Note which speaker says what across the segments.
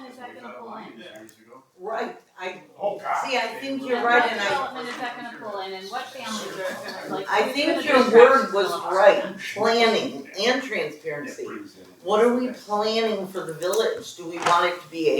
Speaker 1: we got a line years ago.
Speaker 2: Right, I,
Speaker 1: Oh, God.
Speaker 2: See, I think
Speaker 1: They
Speaker 2: you're
Speaker 1: were-
Speaker 2: right,
Speaker 3: What
Speaker 2: and I-
Speaker 3: development is that gonna pull in and what families are gonna like?
Speaker 2: I think your word was right, planning and transparency. What are we planning for the village? Do we want it to be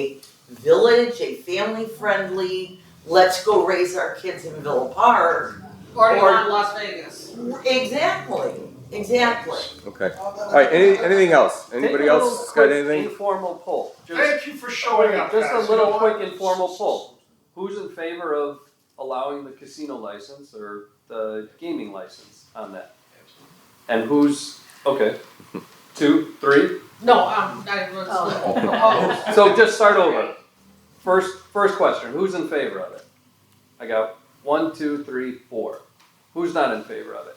Speaker 2: a village, a family-friendly, let's go raise our kids in Villa Park?
Speaker 4: Or you
Speaker 2: Or-
Speaker 4: want Las Vegas?
Speaker 2: Exactly, exactly.
Speaker 5: Okay. All right. Any, anything else? Anybody
Speaker 6: Take a little
Speaker 5: else got
Speaker 6: quick
Speaker 5: anything?
Speaker 6: Informal poll. Just,
Speaker 1: Thank you for showing up,
Speaker 6: just
Speaker 1: guys.
Speaker 6: a
Speaker 1: You know
Speaker 6: little
Speaker 1: what?
Speaker 6: quick informal poll. Who's in favor of allowing the casino license or the gaming license on that? And who's, okay, two, three?
Speaker 4: No, um, I was
Speaker 3: Oh.
Speaker 4: proposed.
Speaker 6: So just start over. First, first question, who's in favor of it? I got one, two, three, four. Who's not in favor of it?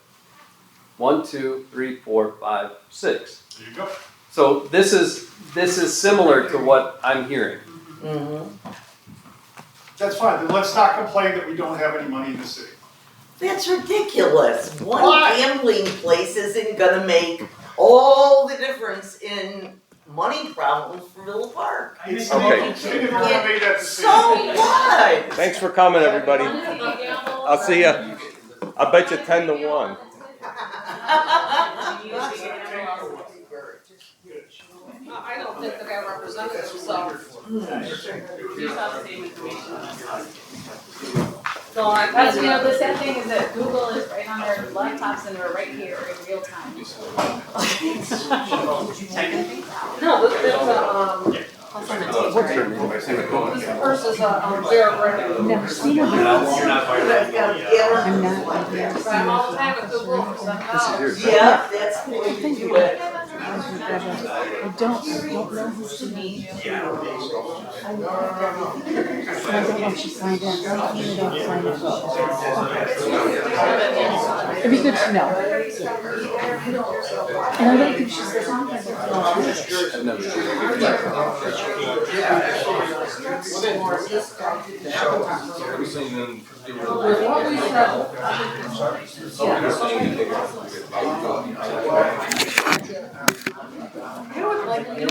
Speaker 6: One, two, three, four, five, six.
Speaker 1: There you go.
Speaker 6: So this is, this is similar to what I'm hearing.
Speaker 2: Mhm.
Speaker 1: That's fine, then let's not complain that we don't have any money in the city.
Speaker 2: That's ridiculous. One
Speaker 1: Why?
Speaker 2: gambling place isn't gonna make all the difference in money problems for Villa Park.
Speaker 1: It's
Speaker 5: Okay.
Speaker 1: not- You never wanna make that
Speaker 2: So
Speaker 1: decision.
Speaker 2: what?
Speaker 5: Thanks for coming, everybody.
Speaker 3: One is the gamble.
Speaker 5: I'll see ya. I bet you ten to one.
Speaker 4: Oh, I I don't think the guy represented himself. You saw the same information. No, I.
Speaker 3: That's, you know, the sad thing is that Google is right on their laptops and we're right here in real time.
Speaker 4: No, this, there's a, um,
Speaker 5: What's your name?
Speaker 4: this person is a, um, Vera Brittain.
Speaker 7: Never seen a
Speaker 2: I've got a gambling
Speaker 7: I'm not
Speaker 2: place like that.
Speaker 4: But I'm all the time with Google, because I'm
Speaker 5: This is
Speaker 4: not.
Speaker 5: yours.
Speaker 2: Yeah, that's the way to do it.
Speaker 7: I don't, I don't know who's to me. I don't know if she signed in, I don't know if she signed in. It'd be good to know. And I don't think she's the contact person.
Speaker 5: I've never seen it.
Speaker 4: With what we said,
Speaker 7: I would like